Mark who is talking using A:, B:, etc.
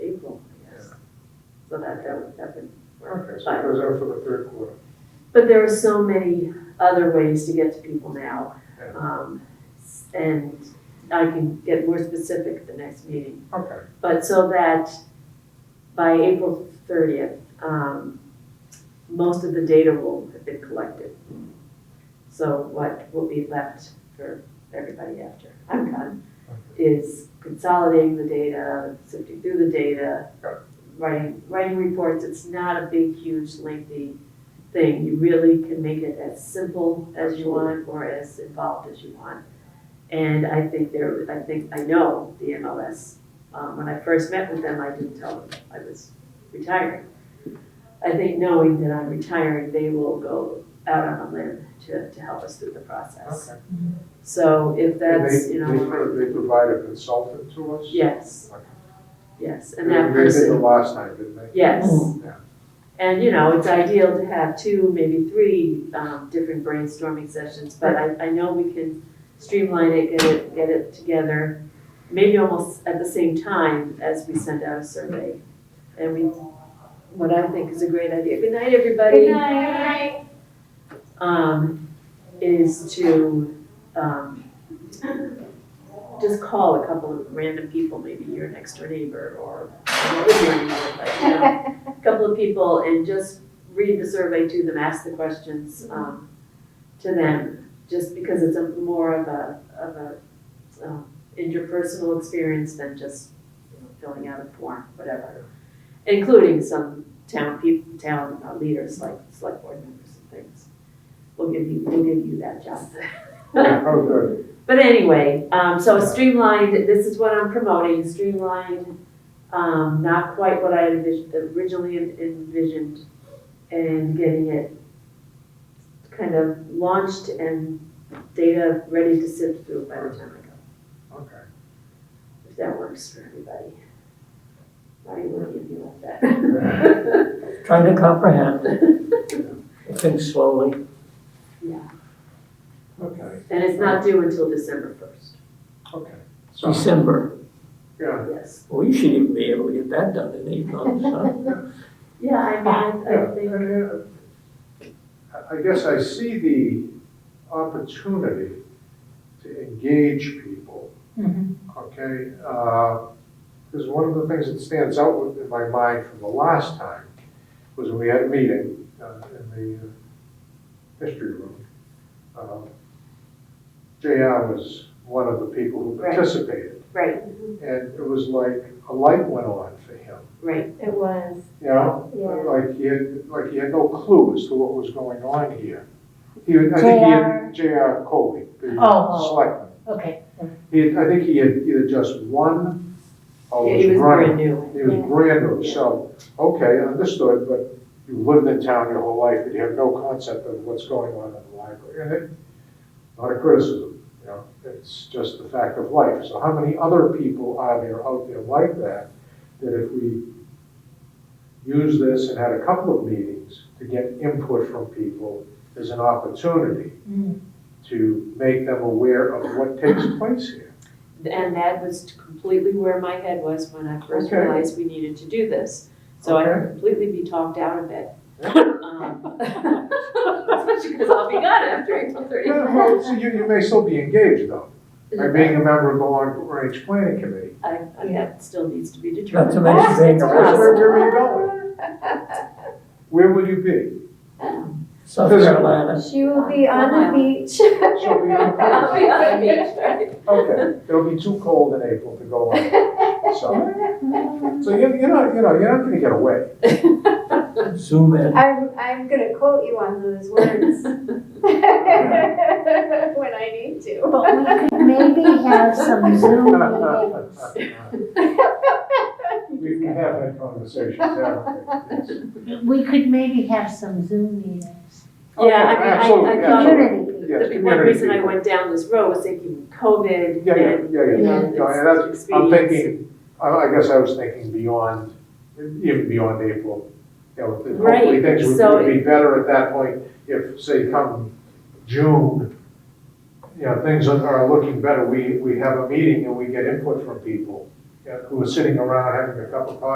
A: so that, that, that would work.
B: Okay, so it goes out for the third quarter.
A: But there are so many other ways to get to people now.
B: Yeah.
A: Um, s- and I can get more specific at the next meeting.
B: Okay,
A: But so that by April thirtieth, um, most of the data will have been collected. So what will be left for everybody after I'm done is consolidating the data, sifting through the data,
B: Got
A: writing, writing reports. It's not a big, huge, lengthy thing. You really can make it as simple as you want or as involved as you want. And I think there, I think, I know the MLS. Um, when I first met with them, I didn't tell them I was retiring. I think knowing that I'm retiring, they will go out on a limb to, to help us through the process.
B: okay.
A: So if
B: And
A: that's,
B: they,
A: you
B: they,
A: know.
B: pro- they provide a consultant to us?
A: Yes,
B: Okay.
A: yes, and
B: They-
A: that
B: They did the
A: person,
B: last night, didn't they?
A: yes.
B: Yeah.
A: And, you know, it's ideal to have two, maybe three, um, different brainstorming sessions, but I, I know we can streamline it, get it, get it together, maybe almost at the same time as we send out a survey. And we, what I think is a great idea, good night, everybody.
C: Good night.
A: um, is to, um, just call a couple of random people, maybe your next door neighbor or not your neighbor, but, you know, a couple of people and just read the survey to them, ask the questions, um, to them, just because it's a more of a, of a, um, interpersonal experience than just, you know, filling out a form, whatever. Including some town people, town uh, leaders, like select board members and things we'll give you, we'll give you that job.
B: Yeah, Oh, good.
A: But anyway, um, so streamlined, this is what I'm promoting, streamlined, um, not quite what I had envis- originally envisioned, and getting it kind of launched and data ready to sift through by the time I go,
B: Okay.
A: if that works for everybody. Marty, what do you feel about that?
D: Trying to comprehend, I think slowly.
B: Okay,
A: And it's not due until December first,
B: okay. So,
D: December,
B: yeah,
A: yes.
D: we should even be able to get that done in eight months, huh?
A: Yeah, I mean, I- I
B: yeah.
A: think.
B: and, uh, I I guess I see the opportunity to engage people okay? Because one of the things that stands out with- in my mind from the last time was when we had a meeting uh, in the uh, history room. Um, JR was one of the people who
A: Right.
B: participated,
A: Right,
B: and it was like a light went on for him,
A: right,
C: It was.
B: you know?
C: Yeah.
B: Like he had, like he had no clue as to what was going on here. He, had- I think he had JR Coley, the
C: Oh, oh.
B: selectman.
C: Okay.
B: He, had- I think he had either just one or
A: Yeah, he
B: was
A: was brand
B: running.
A: new.
B: He was
C: Yeah.
B: brand new, so, okay, understood, but you lived in town your whole life, and you have no concept of what's going on in the library. And it, not a criticism, you know, it's just the fact of life. So how many other people are there out there like that, that if we use this and had a couple of meetings to get input from people, there's an opportunity
C: Mm.
B: to make them aware of what takes place here.
A: And that was completely where my head was when I first
B: Okay.
A: realized we needed to do this. So I
B: Okay.
A: can completely be talked out of it.
B: Yeah.
A: Um, Especially because I'll be gone after April
B: Yeah,
A: thirtieth.
B: well, so you, you may still be engaged though, by
A: Mm-hmm.
B: being a member of the long range planning committee.
A: I, I, that still needs to be
D: That's
A: determined.
D: amazing thing.
B: Where,
D: about
B: where- where are you going? Where will you be?
D: South Carolina.
C: She will be on the beach.
B: She'll be on
A: I'll be on the beach, right?
B: Okay, it'll be too cold in April to go on, so. So you, you're not, you know, you're not gonna get away.
D: Zoom in.
C: I'm, I'm gonna quote you on those words. When I need to.
E: But we could maybe have some Zoom meetings.
B: We, we have had conversations, haven't we? Yes.
E: We could maybe have some Zoom meetings.
A: Yeah, I mean, I- I
B: Absolutely,
A: thought-
B: absolutely.
E: Community people.
B: Yes,
A: The one
B: community
A: reason I
B: people.
A: went down this road was thinking COVID
B: Yeah, yeah,
A: and,
B: yeah, yeah.
A: you know,
E: Yeah.
B: No, and that's-
A: it's
B: I'm
A: experience.
B: thinking, I, I guess I was thinking beyond, even beyond April. You know, that hopefully
A: Right,
B: things would-
A: so
B: would be better at that point if, say, come June, you know, things are, are looking better. We, we have a meeting and we get input from people you know, who are sitting around having a cup of coffee